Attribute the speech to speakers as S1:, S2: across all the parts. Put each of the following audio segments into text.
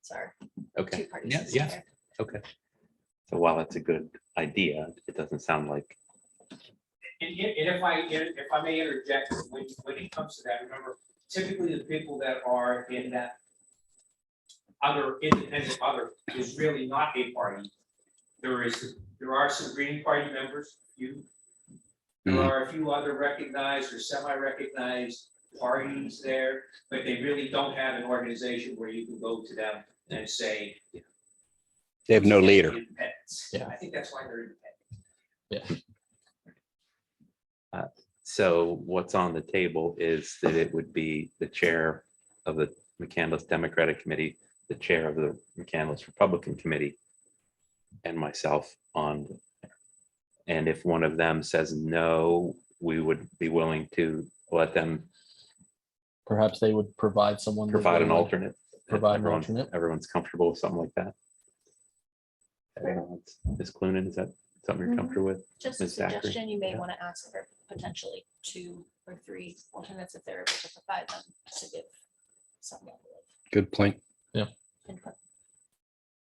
S1: It's our
S2: Okay,
S1: two-party
S3: Yeah,
S1: system
S3: yeah.
S1: here.
S2: so while that's a good idea, it doesn't sound like,
S4: And i- and if I, if I may interject, when, when it comes to that, remember typically the people that are in that other independent other is really not a party. There is, there are some Green Party members, few. There
S3: Mhm.
S4: are a few other recognized or semi-recognized parties there, but they really don't have an organization where you can go to them and say.
S5: They have no leader.
S4: Independents.
S3: Yeah.
S4: I think that's why they're independent.
S2: so what's on the table is that it would be the chair of the McCandless Democratic Committee, the chair of the McCandless Republican Committee, and myself on. And if one of them says no, we would be willing to let them
S3: perhaps they would provide someone. that
S2: provide
S3: they
S2: an
S3: would-
S2: alternate. if
S3: Provide an
S2: everyone-
S3: alternate.
S2: Everyone's comfortable with something like that. I don't know, it's- Ms. Clunin, is that something you're
S1: Mhm.
S2: comfortable with?
S1: Just a
S2: Ms. Zachary?
S1: suggestion, you may
S2: Yeah.
S1: want to ask for potentially two or three alternates if they're able to provide them to give some level
S5: Good point.
S1: of input.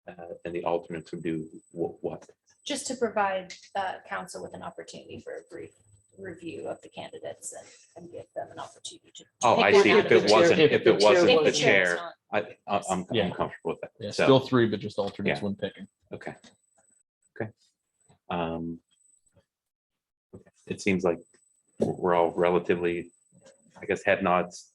S2: Uh, And the alternates would do wh- what?
S1: Just to provide uh, council with an opportunity for a brief review of the candidates and- and give them an opportunity to.
S2: Oh,
S1: pick
S2: I
S1: one
S2: see.
S1: out
S2: If
S1: of
S2: it
S1: the-
S2: wasn't,
S3: if
S2: if
S3: the
S2: it
S3: chair
S2: wasn't
S1: If
S2: the
S1: the chair is
S2: chair,
S1: not-
S2: I, I- I'm, I'm
S3: Yeah.
S2: comfortable with
S3: Yeah,
S2: that.
S3: still
S2: So,
S3: three, but just alternates
S2: Yeah.
S3: when picking.
S2: okay. Okay. Um. okay. It seems like we're we're all relatively, I guess, head nods.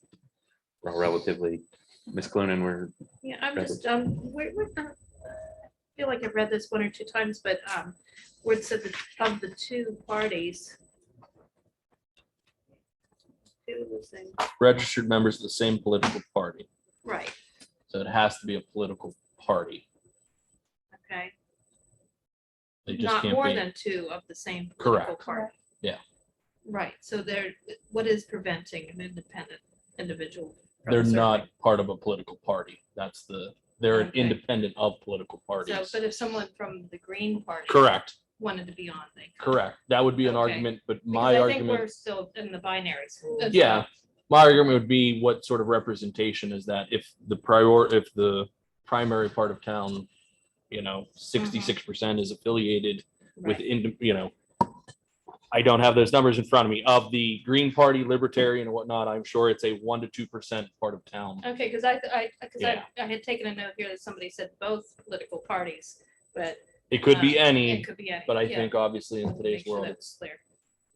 S2: We're all relatively, Ms. Clunin, we're
S6: Yeah, I'm
S2: Rather-
S6: just, um, we're, we're, uh, I feel like I've read this one or two times, but, um, where it said that of the two parties. Two of the same,
S3: Registered members of the same political party.
S6: right,
S3: So it has to be a political party.
S6: okay,
S3: They just
S6: not
S3: can't
S6: more
S3: be-
S6: than two of the same.
S3: Correct.
S6: political party.
S3: Yeah.
S6: Right, so there, what is preventing an independent individual? from
S3: They're
S6: serving?
S3: not part of a political party. That's the, they're an
S6: Okay.
S3: independent of political
S6: So,
S3: parties.
S6: but if someone from the Green Party.
S3: Correct,
S6: Wanted to be on, they. could.
S3: correct. That would be an
S6: Okay.
S3: argument, but
S6: Because
S3: my
S6: I think We're
S3: argument,
S6: still in the binary.
S3: Yeah. my argument would be what sort of representation is that if the prior, if the primary part of town, you know,
S6: Mm-hmm.
S3: sixty-six percent is affiliated with,
S6: Right.
S3: indi- you know, I don't have those numbers in front of me. Of the Green Party, Libertarian and whatnot, I'm sure it's a one to two percent part of town.
S6: Okay, because I, I, because I,
S3: Yeah.
S6: I had taken a note here that somebody said both political parties, but
S3: It could be
S6: Uh,
S3: any,
S6: it could be any.
S3: but I
S6: yeah.
S3: think obviously in
S6: Make
S3: today's
S6: sure
S3: world,
S6: that
S3: it's
S6: it's clear.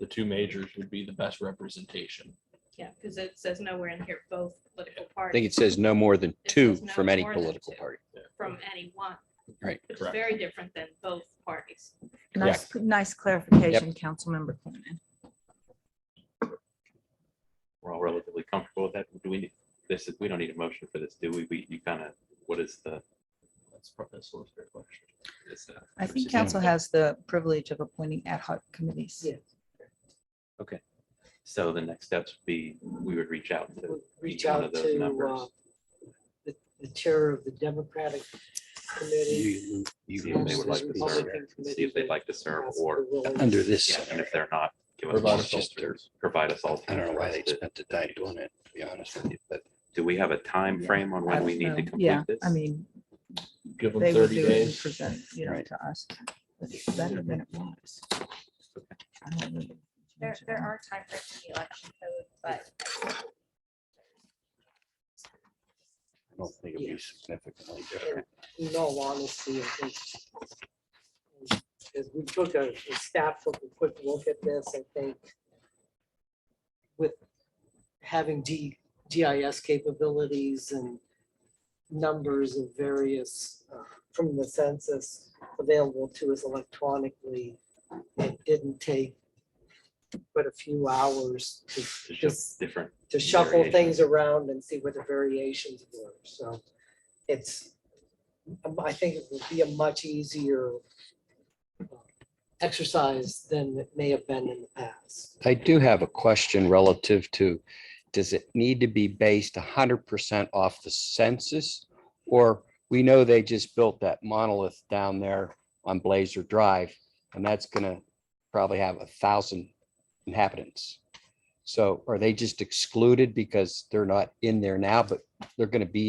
S3: the two majors would be the best representation.
S6: Yeah, because it says nowhere in here both political
S5: I think
S6: parties
S5: it says no more than
S6: It
S5: two
S6: says no
S5: from any
S6: more than
S5: political
S6: two.
S5: party.
S6: from any one.
S5: Right.
S6: Which is
S3: Correct.
S6: very different than both parties.
S7: Nice, nice clarification, Councilmember Clinton.
S2: we're all relatively comfortable with that. Do we, need this, is- we don't need a motion for this, do we? We, you kind of, what is the?
S3: That's probably a solicitor question.
S2: is the-
S7: I think council has the privilege of appointing ad hoc committees.
S2: So the next steps would be, we would reach out to,
S8: would reach
S2: each one
S8: out
S2: of those
S8: to
S2: members.
S8: uh, the- the chair of the Democratic Committee.
S5: You- you-
S2: see if they would like to
S8: Absolutely.
S2: serve,
S8: Republican
S2: see if they'd like to serve, or,
S5: Under this,
S2: yeah, and if they're not, give us
S3: Provide
S2: more
S3: us
S2: filters, provide us all.
S5: I don't know why they spent the time doing it, to be honest with you, but
S2: Do we have a time frame on when we need to
S7: Yeah,
S2: complete this?
S7: I mean,
S3: Give them
S7: they would
S3: thirty
S7: do it and
S3: days.
S7: present, you know,
S5: Right.
S7: to us. but it's Better than it was. I don't really-
S1: There, there are timeframes in the election code, but
S5: I don't think it'd be significantly
S8: And
S5: different.
S8: In all honesty, I think as we took a, the staff took a quick look at this, I think with having D, GIS capabilities and numbers of various, uh, from the census available to us electronically, it didn't take but a few hours to
S2: It's
S8: just
S2: just different.
S8: to shuffle
S2: Variations.
S8: things around and see what the variations were, so it's, um, I think it would be a much easier uh, exercise than it may have been in the past.
S5: I do have a question relative to, does it need to be based hundred percent off the census? Or we know they just built that monolith down there on Blazer Drive, and that's gonna probably have a thousand inhabitants. So are they just excluded because they're not in there now, but they're gonna be